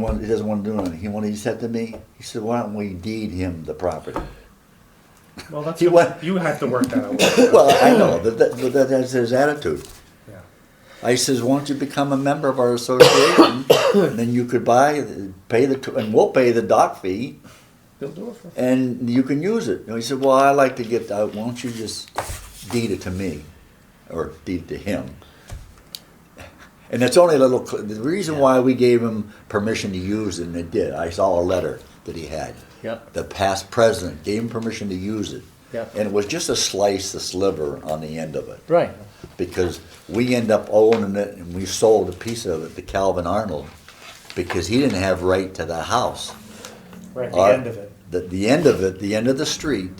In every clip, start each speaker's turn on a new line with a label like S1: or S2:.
S1: want- he doesn't want to do anything. He, when he said to me, he said, why don't we deed him the property?
S2: Well, that's,
S1: He wa-
S2: you have to work that out.
S1: Well, I know, but that, but that- that's his attitude.
S2: Yeah.
S1: I says, won't you become a member of our association? And Then you could buy, pay the, tw- and we'll pay the dock fee
S2: They'll do it for,
S1: and you can use it. And he said, well, I like to get that, won't you just deed it to me? Or deed it to him? And it's only a little, cl- the reason why we gave him permission to use it, and it did, I saw a letter that he had.
S2: Yep.
S1: The past president gave him permission to use it.
S2: Yep.
S1: And it was just a slice, a sliver on the end of it
S3: Right.
S1: because we end up owning it and we sold a piece of it to Calvin Arnold because he didn't have right to the house.
S2: right at the
S1: Our-
S2: end of it.
S1: The, the end of it, the end of the street,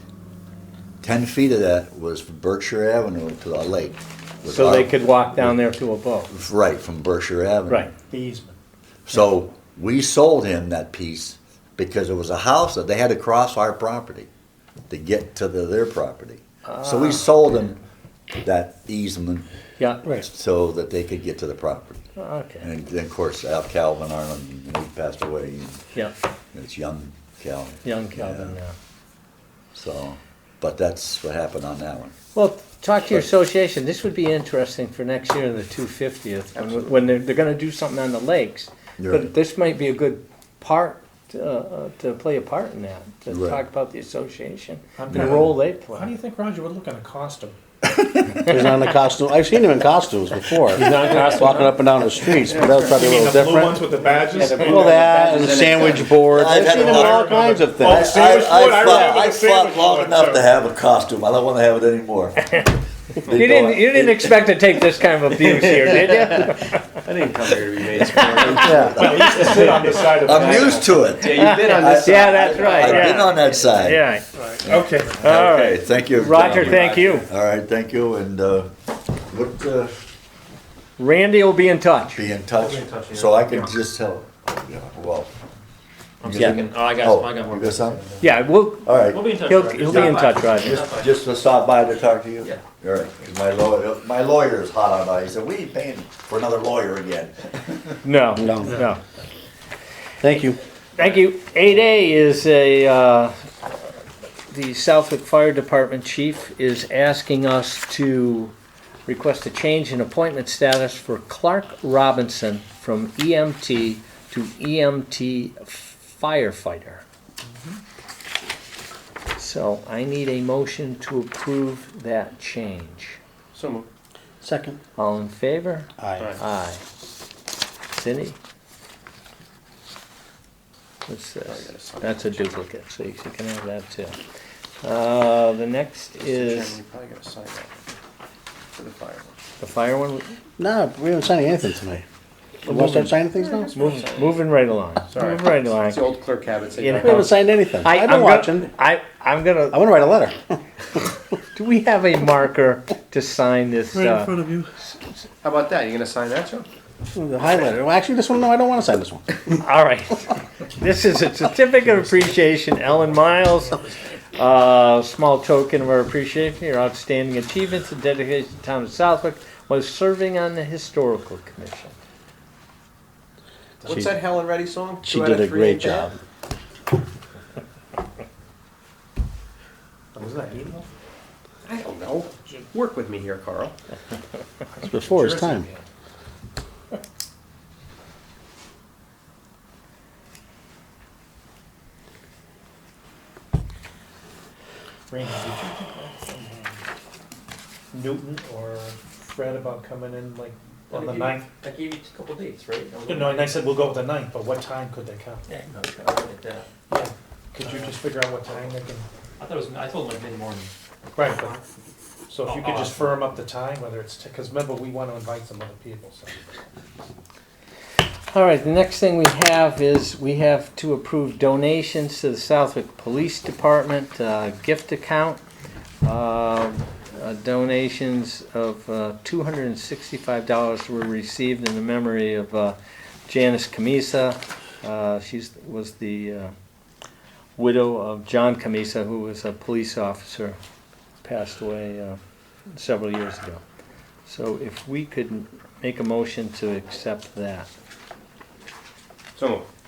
S1: ten feet of that was from Berkshire Avenue to the lake. was
S3: So
S1: our-
S3: they could walk down there to a boat.
S1: Right, from Berkshire Avenue.
S3: Right.
S2: The easement.
S1: So we sold him that piece because it was a house that they had to cross our property to get to the, their property. So we sold him that easement
S3: Ah. Yeah.
S1: so that they could get to the property.
S3: Okay.
S1: And then, of course, Al Calvin Arnold, he passed away.
S3: Yeah.
S1: And it's young Calvin.
S3: Young Calvin
S1: Yeah,
S3: now.
S1: So, but that's what happened on that one.
S3: Well, talk to your association. This would be interesting for next year in the 250th when, when they're, they're going to do something on the lakes.
S1: You're
S3: But
S1: right.
S3: this might be a good part to, uh, to play a part in that, to
S1: Right.
S3: talk about the association
S2: I'm
S3: and the
S2: gonna-
S3: role they
S2: How do
S3: play.
S2: you think Roger would look at a costume?
S4: He's not in a costume. I've seen him in costumes before. He's not in costume. Walking up and down the streets, but that was probably
S2: You
S4: a
S2: mean the
S4: little
S2: blue ones
S4: different.
S2: with the badges?
S4: Well, that and the sandwich board.
S1: I've
S4: I've
S1: had
S4: seen him in
S1: a lot
S4: all
S1: of-
S4: kinds of
S2: Oh,
S4: things.
S2: see, sandwich
S1: I,
S2: board, I
S1: I fought,
S2: remember the
S1: I
S2: sandwich
S1: fought long
S2: board,
S1: enough
S2: so-
S1: to have a costume. I don't want to have it anymore.
S3: You didn't, you didn't expect to take this kind of abuse here, did you?
S5: I didn't come here to be made smart.
S4: Yeah.
S2: Well, he used to sit on the side of the.
S1: I'm used to it.
S5: Yeah, you did on this.
S3: Yeah, that's right.
S1: I've been
S3: yeah.
S1: on that side.
S3: yeah.
S2: Okay.
S3: All
S1: Okay,
S3: right.
S1: thank you.
S3: Roger, thank you.
S1: All right, thank you, and, uh, what, uh,
S3: Randy will be in touch.
S1: be in touch,
S5: in touch, yeah.
S1: so I can just tell, yeah, well.
S5: I'm
S1: Yeah.
S5: thinking, oh, I
S1: Oh,
S5: got, I got
S1: You
S5: more.
S1: got something?
S3: Yeah, we'll,
S1: All right.
S5: We'll be in touch.
S3: He'll-
S5: Roger.
S3: he'll be in
S5: Stop by.
S3: touch, Roger.
S5: Stop by.
S1: Just to stop by to talk to you?
S5: Yeah.
S1: All right, 'cause my lawyer, my lawyer is hot on that, he said, we ain't paying for another lawyer again.
S3: no,
S4: No.
S3: no.
S4: Thank you.
S3: Thank you. Eight A is a, uh, the Southwick Fire Department chief is asking us to request a change in appointment status for Clark Robinson from EMT to EMT firefighter. So I need a motion to approve that change.
S5: So moved.
S4: Second.
S3: All in favor?
S4: Aye.
S3: Aye. Cindy? What's
S5: Oh,
S3: this? That's a duplicate, so you can have that too. Uh, the next is
S5: You probably gotta sign that for the fire.
S3: the fire one,
S4: No, we haven't signed anything tonight. You want to start signing things now?
S3: Move- moving right along,
S5: Sorry.
S3: moving right along.
S5: It's the old clerk habit. so you
S3: You
S5: don't
S4: We
S3: know.
S4: haven't signed anything.
S3: I-
S4: I've
S3: I'm
S4: been
S3: go-
S4: watching.
S3: I, I'm
S4: I
S3: gonna,
S4: want to write a letter.
S3: do we have a marker to sign this, uh,
S2: of you.
S5: How about that? You gonna sign that, Joe?
S4: The highlighter. Well, actually, this one, no, I don't want to sign this one.
S3: all right. This is a certificate of appreciation, Ellen Miles. uh, small token of our appreciation, your outstanding achievements and dedication to the town of Southwick was serving on the historical commission.
S5: What's that Helen Reddy song?
S4: She
S5: Two out of
S4: did a
S5: three
S4: great
S5: ain't bad?
S4: job.
S5: Was that email? I don't know. Work with me here, Carl.
S4: It's before his time.
S2: Randy, did you think that from um, Newton or Fred about coming in like on the ninth?
S5: I gave you a couple dates, right?
S2: No, and I said, we'll go with the ninth, but what time could they come?
S5: Yeah, no, I'll get that.
S2: Could you just figure out what time they can?
S5: I thought it was, I told him like mid-morning.
S2: Right, but, so if you could just firm up the time, whether it's, because remember, we want to invite some other people, so.
S3: All right, the next thing we have is we have to approve donations to the Southwick Police Department, uh, gift account. Uh, uh, donations of, uh, two hundred and sixty-five dollars were received in the memory of, uh, Janice Camisa. Uh, she's, was the, uh, widow of John Camisa, who was a police officer, passed away, uh, several years ago. So if we could make a motion to accept that.
S5: So moved.